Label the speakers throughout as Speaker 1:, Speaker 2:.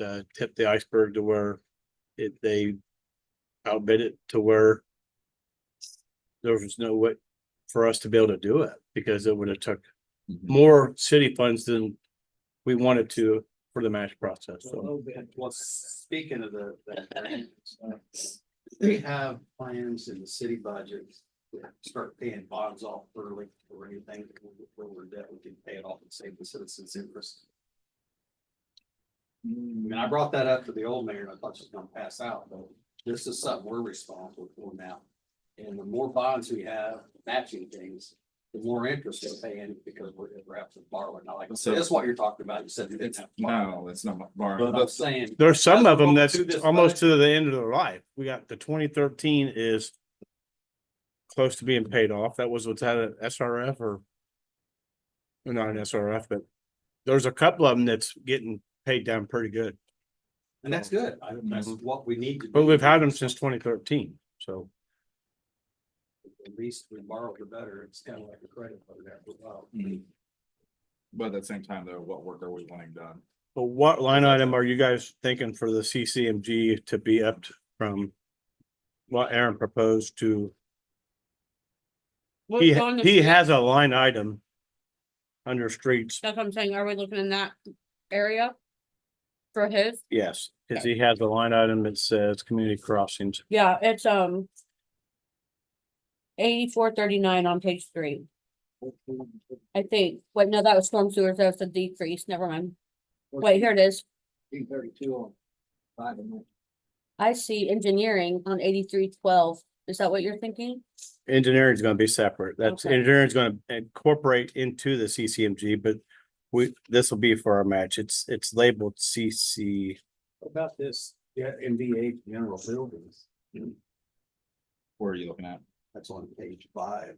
Speaker 1: uh, tipped the iceberg to where it, they outbid it to where there was no way for us to be able to do it because it would have took
Speaker 2: Mhm.
Speaker 1: more city funds than we wanted to for the match process.
Speaker 3: A
Speaker 1: So
Speaker 3: little bit, well, speaking of the, the plans, uh, we have plans in the city budget. to Start paying bonds off early or anything that we- where we're debt, we can pay it off and save the citizens interest. I mean, I brought that up to the old mayor and I thought she was gonna pass out, but this is something we're responsible for now. And the more bonds we have matching things, the more interest we're paying because we're, we're after borrowing. Not like,
Speaker 2: So-
Speaker 3: that's what you're talking about. You said you didn't
Speaker 2: It's,
Speaker 3: have.
Speaker 2: no, it's not
Speaker 3: But
Speaker 2: borrowing.
Speaker 3: I'm saying.
Speaker 1: there's some of them that's
Speaker 3: Through this
Speaker 1: almost to the end of their life. We got the twenty thirteen is close to being paid off. That was what's had an SRF or well, not an SRF, but there's a couple of them that's getting paid down pretty good.
Speaker 3: And that's good. I, that's what we need to. do.
Speaker 1: But we've had them since twenty thirteen, so.
Speaker 3: The least we borrow, the better. It's kind of like a credit card. that we borrow.
Speaker 2: Mhm. But at the same time, though, what work are we wanting done?
Speaker 1: But what line item are you guys thinking for the CCMG to be up t- from what Aaron proposed to?
Speaker 4: What's
Speaker 1: He,
Speaker 4: on the
Speaker 1: he
Speaker 4: street?
Speaker 1: has a line item under streets,
Speaker 4: That's what I'm saying. Are we looking in that area? For his?
Speaker 1: yes, because he has a line item that says community crossings.
Speaker 4: Yeah, it's, um. Eighty-four thirty-nine on page three, I think. Wait, no, that was storm sewers. That's a decrease. Never mind. Wait, here it is.
Speaker 3: thirty-two on five and nine.
Speaker 4: I see engineering on eighty-three twelve. Is that what you're thinking?
Speaker 1: Engineering is going to be separate. That's,
Speaker 4: Okay.
Speaker 1: engineering is going to incorporate into the CCMG, but we, this will be for our match. It's, it's labeled CC.
Speaker 3: About this, yeah, MVA general buildings,
Speaker 2: Where are you looking at?
Speaker 3: that's on page five,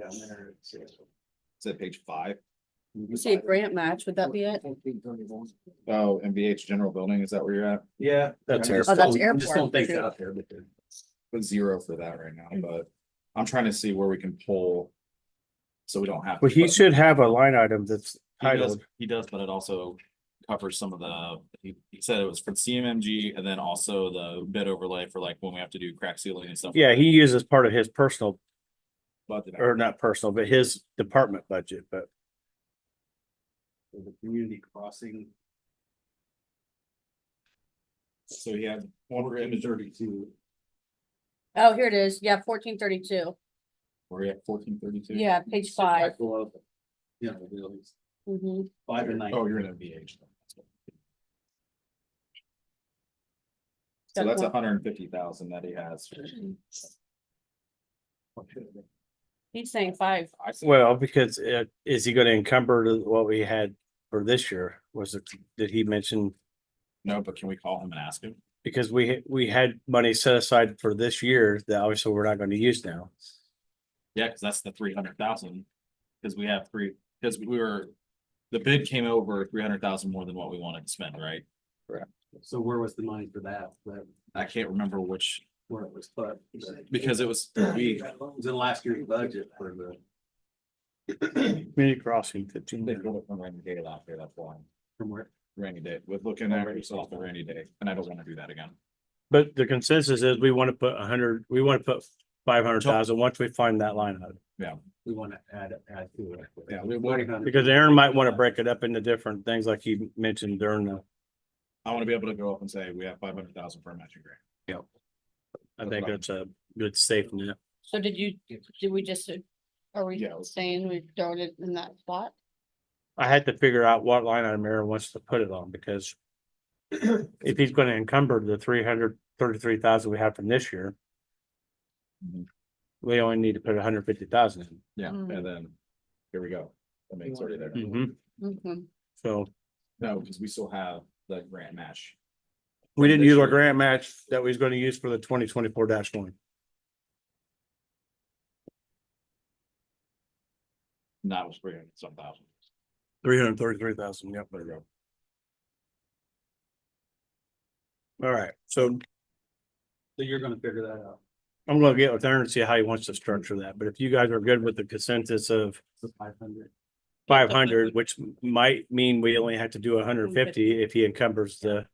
Speaker 3: down there. it says-
Speaker 2: Is it page five?
Speaker 4: You see a grant match. Would that be it?
Speaker 2: Oh, MVH General Building, is that where you're at?
Speaker 3: Yeah.
Speaker 1: That's
Speaker 3: I just
Speaker 4: Oh, that's
Speaker 3: don't- I Just
Speaker 4: airport,
Speaker 3: don't think
Speaker 4: too.
Speaker 3: it's out there, but then-
Speaker 2: Put zero for that right now, but I'm trying to see where we can pull. So we don't have.
Speaker 1: Well,
Speaker 2: to,
Speaker 1: he
Speaker 2: but-
Speaker 1: should have a line item that's
Speaker 2: He does,
Speaker 1: titled,
Speaker 2: he does, but it also covers some of the, he, he said it was for CMMG and then also the bid overlay for like when we have to do crack sealing and stuff. like
Speaker 1: yeah,
Speaker 2: that.
Speaker 1: he uses part of his personal,
Speaker 2: But the-
Speaker 1: or not personal, but his department budget, but
Speaker 3: for the community crossing.
Speaker 2: So he had one for image
Speaker 3: thirty-two.
Speaker 4: Oh, here it is. Yeah, fourteen thirty-two.
Speaker 2: we're at fourteen thirty-two.
Speaker 4: Yeah, page five.
Speaker 3: Below, you know, buildings,
Speaker 4: Mhm.
Speaker 3: five and nine.
Speaker 2: Oh, you're in MVH. So
Speaker 4: Got
Speaker 2: that's
Speaker 4: one.
Speaker 2: hundred and fifty thousand that he has.
Speaker 4: He's saying five.
Speaker 2: I see.
Speaker 1: well, because uh, is he gonna encumber to what we had for this year? Was it, did he mention?
Speaker 2: No, but can we call him and ask him?
Speaker 1: Because we, we had money set aside for this year that obviously we're not gonna use now.
Speaker 2: Yeah, cause that's the three hundred thousand. Cause we have three, cause we were, the bid came over three hundred thousand more than what we wanted to spend, right?
Speaker 3: So where was the money for that, that,
Speaker 2: I can't remember which,
Speaker 3: where it was put?
Speaker 2: because it was,
Speaker 3: We,
Speaker 2: we,
Speaker 3: it was in last year's budget for the,
Speaker 1: Community crossing fifteen.
Speaker 2: they pulled it from rainy day last year, that's why.
Speaker 3: from where,
Speaker 2: Rainy day, with looking at yourself the rainy day, and I don't wanna do that again.
Speaker 1: But the consensus is we wanna put a hundred, we wanna put five hundred thousand once we find that line item.
Speaker 3: we want to add, add to it.
Speaker 2: Yeah, we-
Speaker 1: Because Aaron might wanna break it up into different things like he mentioned during the,
Speaker 2: I wanna be able to go up and say, we have five hundred thousand for a matching grant.
Speaker 1: I think that's a good safe net.
Speaker 4: So did you, did we just, are we
Speaker 2: Yeah, it was-
Speaker 4: saying we throw it in that spot?
Speaker 1: I had to figure out what line item Aaron wants to put it on because if he's gonna encumber the three hundred thirty-three thousand we have from this year, Mm-hmm.
Speaker 2: Mhm.
Speaker 1: we only need to put hundred fifty thousand in.
Speaker 2: Yeah,
Speaker 4: Mm.
Speaker 2: and then, here we go. I mean, it's already there.
Speaker 1: Mhm.
Speaker 4: Mhm.
Speaker 1: So
Speaker 2: No, because we still have the grant match.
Speaker 1: we didn't
Speaker 2: this
Speaker 1: use our
Speaker 2: year.
Speaker 1: grant match that we was gonna use for the twenty twenty-four dash one.
Speaker 2: Not was three hundred some thousand.
Speaker 1: Three hundred thirty-three thousand, yep, there you go. All right, so
Speaker 3: So you're gonna figure that out.
Speaker 1: I'm gonna get with Aaron and see how he wants to structure that, but if you guys are good with the consensus of
Speaker 3: The five hundred.
Speaker 1: five hundred, which might mean we only have to do hundred and fifty if he encumbers the